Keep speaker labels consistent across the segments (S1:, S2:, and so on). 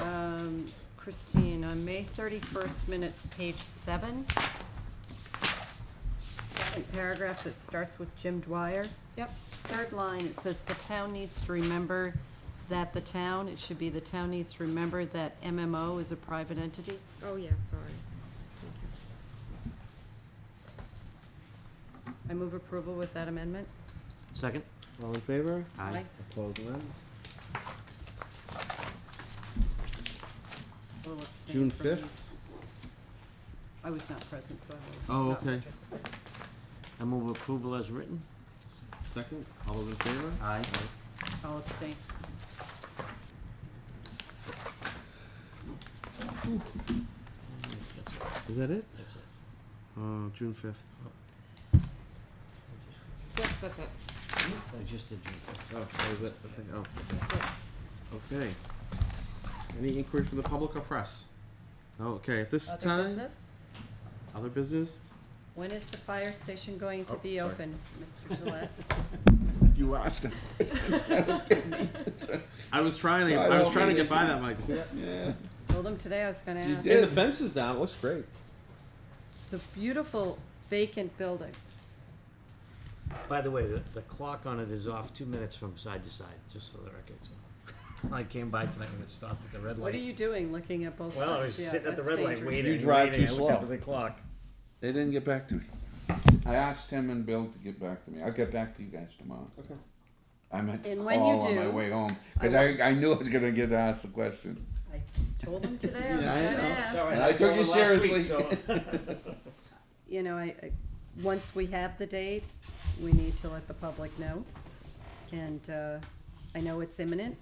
S1: Um, Christine, on May thirty-first minutes, page seven. Second paragraph that starts with Jim Dwyer. Yep. Third line, it says the town needs to remember that the town, it should be the town needs to remember that MMO is a private entity.
S2: Oh, yeah, sorry. Thank you.
S1: I move approval with that amendment.
S3: Second?
S4: All in favor?
S1: Aye.
S4: Opposed, none.
S1: Will abstain
S4: June
S1: from
S4: 5th?
S1: these. I was not present, so I will
S4: Oh,
S1: not
S4: okay.
S1: participate.
S3: I move approval as written.
S4: S- Second, all those in favor?
S3: Aye.
S1: I'll abstain.
S3: That's it,
S4: Is that it?
S3: that's it.
S4: Uh, June fifth.
S2: Yep, that's it.
S3: I just did June fifth.
S4: Oh, that was it, okay, oh, okay. Okay. Any inquiry from the public or press? Okay, at this
S1: Other
S4: time,
S1: business?
S4: other business,
S1: When is the fire station going to
S4: Oh,
S1: be
S4: sorry.
S1: open, Mr. Gillette?
S4: you asked. I was trying to, I was trying to get by that, Mike.
S5: Yeah.
S1: Told him today I was gonna
S5: You
S1: ask.
S5: did.
S4: And the fence is down, it looks great.
S1: It's a beautiful vacant building.
S3: By the way, the, the clock on it is off two minutes from side to side, just for the record. so. I came by tonight and it stopped at the red light.
S1: What are you doing, looking at both sides?
S3: Well, I was
S1: Yeah,
S3: sitting at the
S1: that's
S3: red light
S1: dangerous.
S3: waiting,
S4: You drive
S3: waiting, I
S4: too
S3: looked up
S4: slow.
S3: at the clock.
S5: They didn't get back to me. I asked Tim and Bill to get back to me. I'll get back to you guys tomorrow.
S4: Okay.
S5: I meant to
S1: And
S5: call
S1: when you
S5: on my
S1: do,
S5: way home because I, I, knew I was going to get asked the question.
S1: I told him today I was
S5: Yeah, I
S1: gonna
S5: know.
S1: ask.
S3: Sorry,
S5: And I took
S3: told
S5: you
S3: her last week,
S5: seriously.
S3: so-
S1: You know, I, I, once we have the date, we need to let the public know. And, uh, I know it's imminent,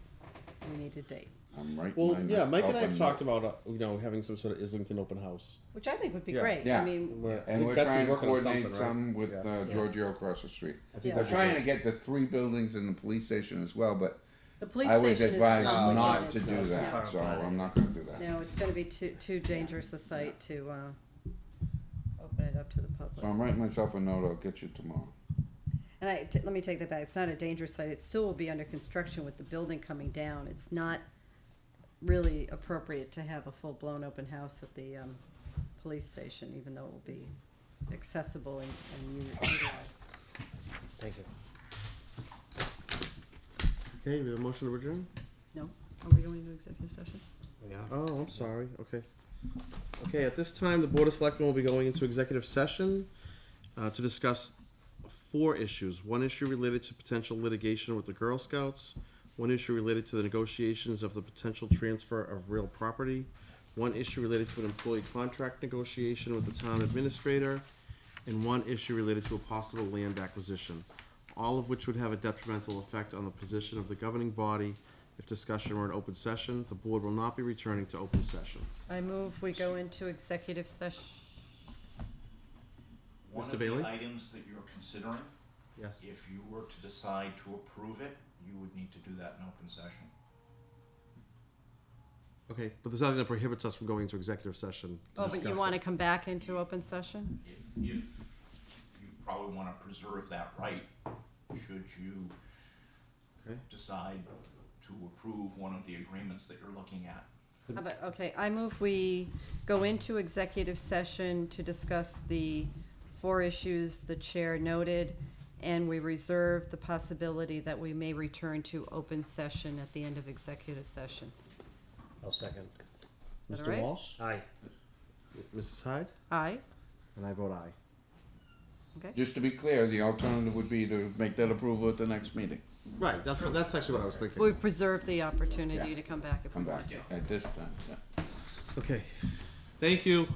S1: we need a date,
S5: I'm right.
S4: Well, yeah, Mike and I have talked about, uh, you know, having some sort of Islington open house.
S1: which I think would be
S4: Yeah.
S1: great. I
S5: Yeah.
S1: mean,
S4: Where- I
S5: And
S4: think
S5: we're
S4: Betsy's
S5: trying to
S4: working on
S5: coordinate
S4: something, right?
S5: some with
S4: Yeah.
S5: uh,
S1: Yeah.
S5: Giorgio across the street.
S4: I think
S1: Yeah.
S5: We're
S4: that's
S5: trying
S4: good.
S5: to get the three buildings and the police station as well, but
S1: the police
S5: I was
S1: station is complicated.
S5: advised not to
S3: No,
S5: do
S3: it's
S5: that,
S3: not.
S5: so I'm not going to do that.
S1: No, it's gonna be too, too dangerous a site to, uh, open it up to the
S5: So
S1: public.
S5: I'm writing myself a note. I'll get you tomorrow.
S1: And I, t- let me take that back, it's not a dangerous site, it still will be under construction with the building coming down. It's not really appropriate to have a full-blown open house at the, um, police station, even though it will be accessible and, and u- utilized.
S3: Thank you.
S4: Okay, we have a motion to adjourn?
S1: No? Are we going to executive session?
S3: Yeah.
S4: Oh, I'm sorry, okay. Okay, at this time, the Board of Selectmen will be going into executive session uh, to discuss four issues. One issue related to potential litigation with the Girl Scouts, one issue related to the negotiations of the potential transfer of real property, one issue related to an employee contract negotiation with the town administrator, and one issue related to a possible land acquisition, all of which would have a detrimental effect on the position of the governing body if discussion were an open session. The board will not be returning to open session.
S1: I move we go into executive session.
S6: One
S4: Mr.
S6: of
S4: Bailey?
S6: the items that you're considering,
S4: Yes.
S6: if you were to decide to approve it, you would need to do that in open session.
S4: Okay, but there's nothing that prohibits us from going into executive session to
S1: Oh, but you
S4: discuss
S1: wanna
S4: it.
S1: come back into open session?
S6: If, if you probably want to preserve that right, should you
S4: Okay.
S6: decide to approve one of the agreements that you're looking at.
S1: How about, okay, I move we go into executive session to discuss the four issues the chair noted, and we reserve the possibility that we may return to open session at the end of executive session.
S3: I'll second.
S1: Is that all
S4: Mr.
S1: right?
S4: Walsh,
S3: Aye.
S4: Mrs. Hyde,
S1: Aye,
S4: and I vote aye.
S1: okay.
S5: Just to be clear, the alternative would be to make that approval at the next meeting.
S4: Right, that's what, that's actually what I was thinking.
S1: We preserve the opportunity
S5: Yeah.
S1: to come back if we
S5: Come back
S1: want to.
S5: at this time. yeah.
S4: Okay, thank you.